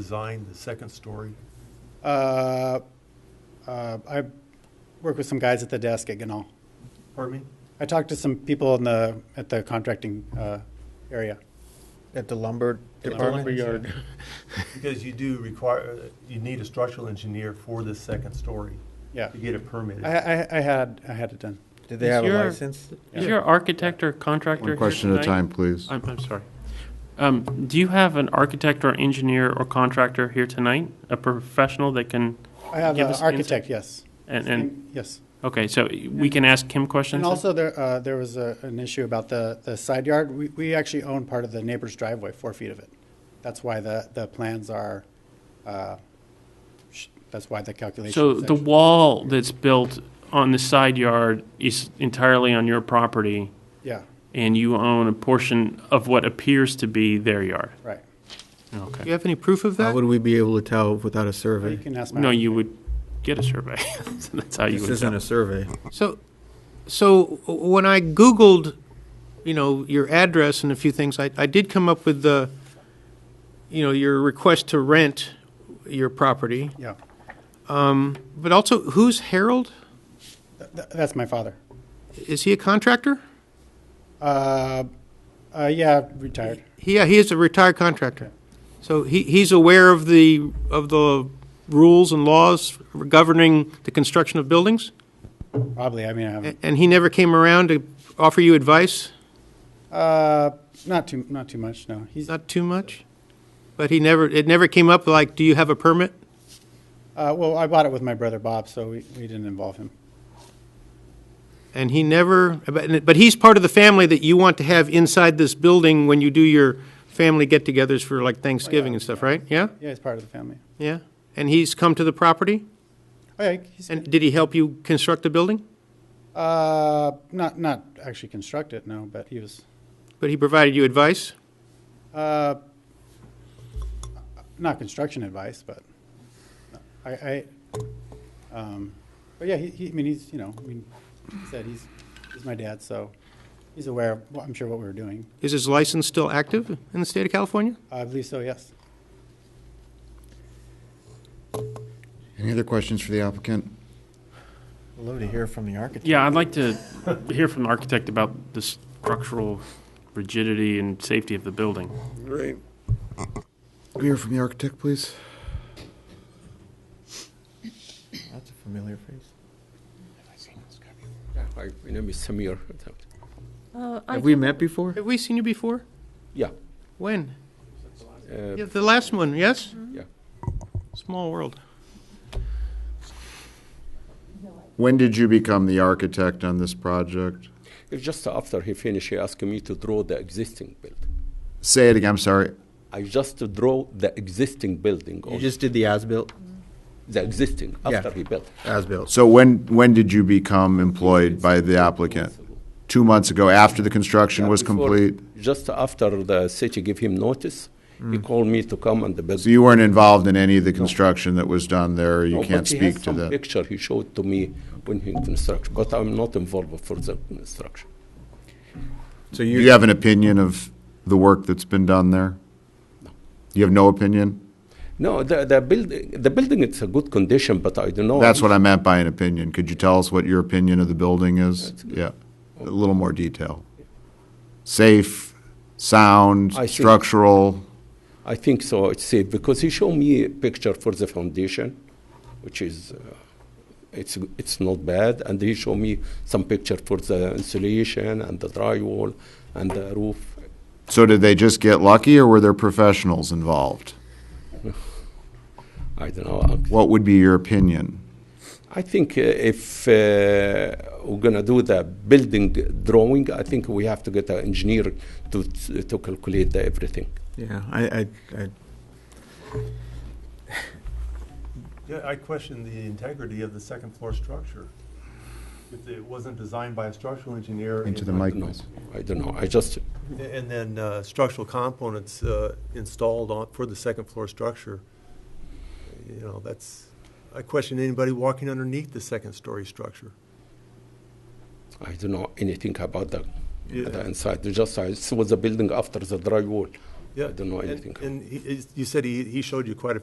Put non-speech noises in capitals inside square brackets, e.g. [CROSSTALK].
design the second story? Uh, uh, I work with some guys at the desk at Ganal. Pardon me? I talked to some people in the, at the contracting uh, area. At the lumber department? Lumberyard. Because you do require, uh, you need a structural engineer for this second story Yeah. to get it permitted. I, I, I had, I had it done. [LAUGHS] Did they Is have a your- license? Is your architect or contractor One here question at a tonight? time, please. I'm, I'm sorry. Um, do you have an architect or engineer or contractor here tonight? A professional that can, I have Give an us architect, yes. and, and, Yes. okay, so we can ask him questions? And also there, uh, there was a, an issue about the, the side yard. We, we actually own part of the neighbor's driveway, four feet of it. That's why the, the plans are, uh, sh- that's why the calculation. So is the actually- wall that's built on the side yard is entirely on your property, Yeah, and you own a portion of what appears to be their yard? right. Okay. Do you have any proof of How that? would we be able to tell without a You survey? can ask my. No, you would get a survey. [LAUGHS] That's how you This would isn't tell. a survey. So, so when I Googled, you know, your address and a few things, I, I did come up with the, you know, your request to rent your property, Yeah, but also who's Harold? Th- th- that's my father. Is he a contractor? Uh, uh, yeah, retired. Yeah, he is a retired contractor. So he, he's aware of the, of the rules and laws governing the construction of buildings? Probably. I mean, I A- haven't. And he never came around to offer you advice? Uh, not too, not too much. No, he's. Uh, Eh. Not too much? But he never, it never came up like, do you have a permit? uh, well, I bought it with my brother Bob, so we, we didn't involve him. And he never, but but he's part of the family that you want to have inside this building when you do your family get-togethers for like Thanksgiving and stuff, right? Yeah? Yeah, he's part of the family. Yeah? And he's come to the property? Oh, yeah, he's. And did he help you construct the building? uh, not, not actually construct it. No, but he was. But he provided you advice? Uh, not construction advice, but I, I. Um, but yeah, he, he. I mean, he's. You know, I mean, he said he's. He's my dad, so he's aware. Of, well, I'm sure what we were doing. Is his license still active in the state of California? I believe so. Yes. Any other questions for the applicant? I'd love to hear from the architect. Yeah, I'd like to hear from the architect about the structural rigidity and safety of the building. Right. Hear from the architect, please. That's a familiar face. Yeah, Hi, my name is Samir. Uh, I Have we don't- met before? Have we seen you before? Yeah. When? uh, Mm-hmm. Yeah, the last one, yes? Yeah. Small world. When did you become the architect on this project? It's just after he finished, he asked me to draw the existing building. Say it again, I'm sorry. I just draw the existing building, You or just did the as-built? the existing Yeah. after he built. As-built. So when, when did you become employed by the applicant? Two months ago, after the construction Yeah, was before- complete? Mm. Just after the city gave him notice, he called me to come and the build. So you weren't involved in any of the construction that was done there, you No, can't but he has speak to some that? Picture he showed to me when he construction, but I'm not involved for the construction. So Do you you, have an opinion of the work that's been done there? You have no opinion? No, the the building the building it's a good condition, but I don't know. That's what I meant by an opinion. Could you tell us what your opinion of the building is? Yeah, a little more detail. Safe, sound, I think- structural, I think so. It's safe because he showed me a picture for the foundation, which is uh, it's it's not bad, and he showed me some picture for the insulation and the drywall and the roof. so did they just get lucky or were there professionals involved? I don't know. I'm- What would be your opinion? I think uh, if uh, we're gonna do the building drawing, I think we have to get an engineer to to calculate the everything. yeah, I, I, I Yeah, I question the integrity of the second floor structure. If it wasn't designed by a structural engineer. Into the and- I mic, don't know. please. I don't know. I just And then uh, structural components uh, installed on, for the second floor structure. You know, that's, I question anybody walking underneath the second story structure. I don't know anything about the, Yeah. the inside. Just I saw the building after the drywall, Yeah. I don't know And- anything. And he, you said he, he showed you quite a